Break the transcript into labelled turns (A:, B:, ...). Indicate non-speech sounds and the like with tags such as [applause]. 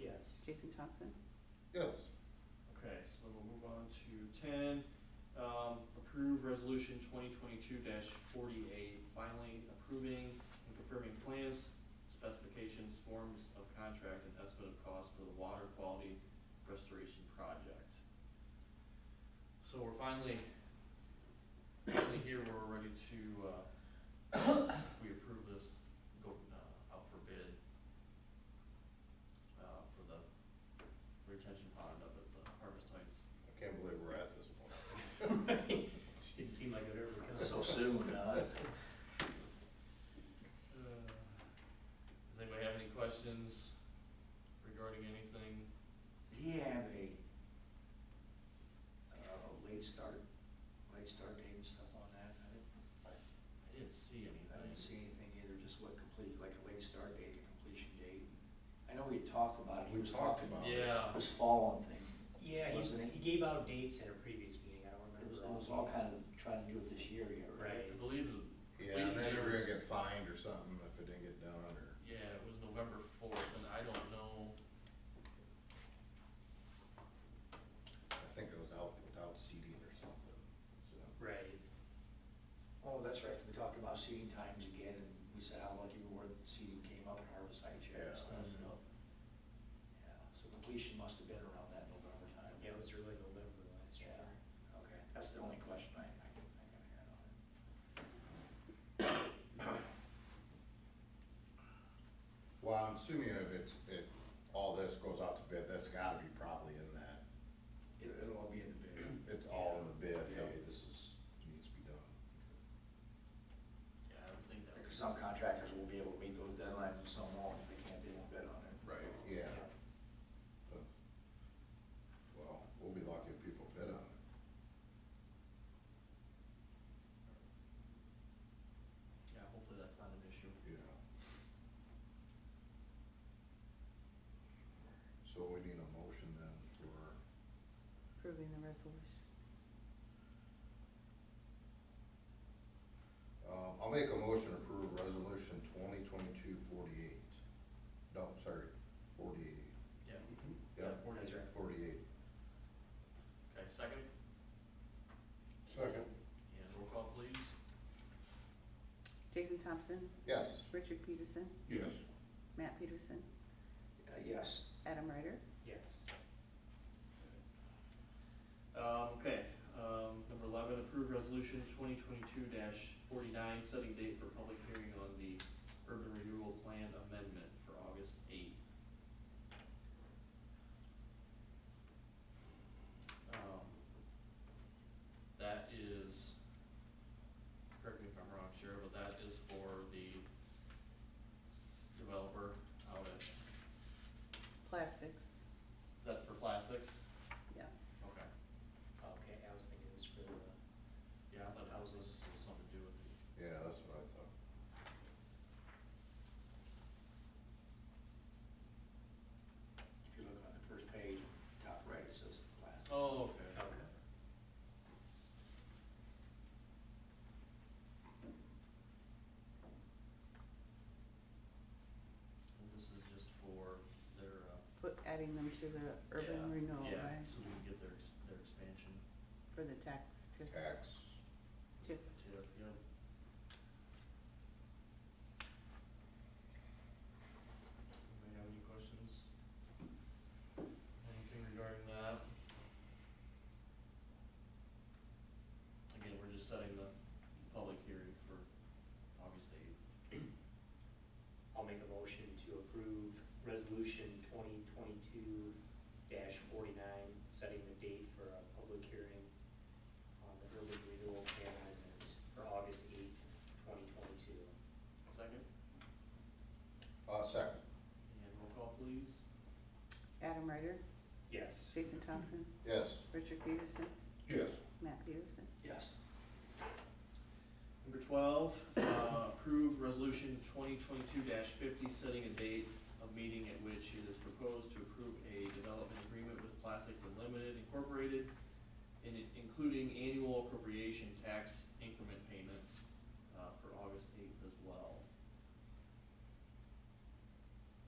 A: Yes.
B: Jason Thompson?
C: Yes.
D: Okay, so then we'll move on to ten, um, approve resolution twenty twenty-two forty-eight, finally approving and confirming plans, specifications, forms of contract, and estimate of cost for the water quality restoration project. So we're finally, finally here, where we're ready to, uh, [coughs] if we approve this, go, uh, out for bid, uh, for the retention pond up at the Harvest Heights.
C: I can't believe we're at this point.
A: Didn't seem like it ever comes.
E: [laughs] So soon, uh,
D: Uh, Does anybody have any questions regarding anything?
E: do you have a, uh, late start, late start date and stuff on that? I didn't,
D: I didn't see anything.
E: I didn't see anything either, just what complete, like a late start date, a completion date. I know we talked about it. He
C: We
E: was
C: talked
E: talking-
C: about it.
D: Yeah,
E: This fall and thing.
A: Yeah,
E: Wasn't
A: he,
E: it?
A: he gave out dates in a previous meeting, I
E: It was,
A: don't remember.
E: it was all kind of trying to do it this year yet, right?
D: I believe, it-
C: Yeah, and then they were gonna get fined or something if it didn't get done, or,
D: yeah, it was November fourth, and I don't know,
C: I think it was out without seating or something, so.
A: Right,
E: Oh, that's right, we talked about seeding times again, and we said how lucky we were that the seeding came up at Harvest Heights yet
C: Yeah.
E: and stuff, so. Yeah, so completion must have been around that November time.
A: Mm-hmm. yeah, it was early November last year.
E: Yeah, okay, that's the only question I, I can, I can add on it.
C: Well, I'm assuming if it's, if all this goes out to bid, that's gotta be probably in that,
E: It- It'll all be in the bid.
C: it's all in the bid,
E: Yeah.
C: hey, this is, needs to be done.
D: yeah, I don't think that
E: Because
D: was.
E: some contractors will be able to meet those deadlines and some won't, if they can't, they won't bid on it.
C: Right. Yeah. But, Well, we'll be lucky if people bid on it.
D: Yeah, hopefully that's not an issue.
C: Yeah. So we need a motion then for,
B: Approving the resolution.
C: um, I'll make a motion to approve resolution twenty twenty-two forty-eight. No, sorry, forty-eight.
D: Yeah.
C: Yeah,
A: That's right.
C: forty-eight.
D: Okay, second,
C: Second.
D: and roll call please.
B: Jason Thompson?
C: Yes.
B: Richard Peterson?
C: Yes.
B: Matt Peterson?
E: Uh, yes,
B: Adam Ryder?
A: Yes.
D: Um, okay, um, number eleven, approve resolution twenty twenty-two forty-nine, setting date for public hearing on the urban renewal plan amendment for August eighth. Um, that is, correct me if I'm wrong, Chair, but that is for the developer out at,
B: Plastics?
D: that's for plastics?
B: Yes.
D: Okay.
A: Okay, I was thinking it was for the,
D: Yeah, I thought houses was something to do with the
C: Yeah, that's what I thought.
E: if you look on the first page, top right, it says plastics.
D: Oh, okay. And this is just for their, uh.
B: Put, adding them to the urban
D: yeah,
B: renewal, right?
D: Yeah, so we can get their, ex- their expansion
B: For the tax to,
C: Tax,
B: to,
D: to, you know. Anybody have any questions? Anything regarding that? Again, we're just setting the public hearing for August eighth.
A: I'll make a motion to approve resolution twenty twenty-two forty-nine, setting the date for a public hearing on the urban renewal plan amendment for August eighth, twenty twenty-two.
D: Second,
C: uh, second,
D: and roll call please.
B: Adam Ryder?
A: Yes.
B: Jason Thompson?
C: yes.
B: Richard Peterson?
C: Yes.
B: Matt Peterson?
E: Yes.
D: Number twelve, uh, approve resolution twenty twenty-two fifty, setting a date of meeting at which it is proposed to approve a development agreement with Plastics Unlimited Incorporated, in, including annual appropriation tax uh,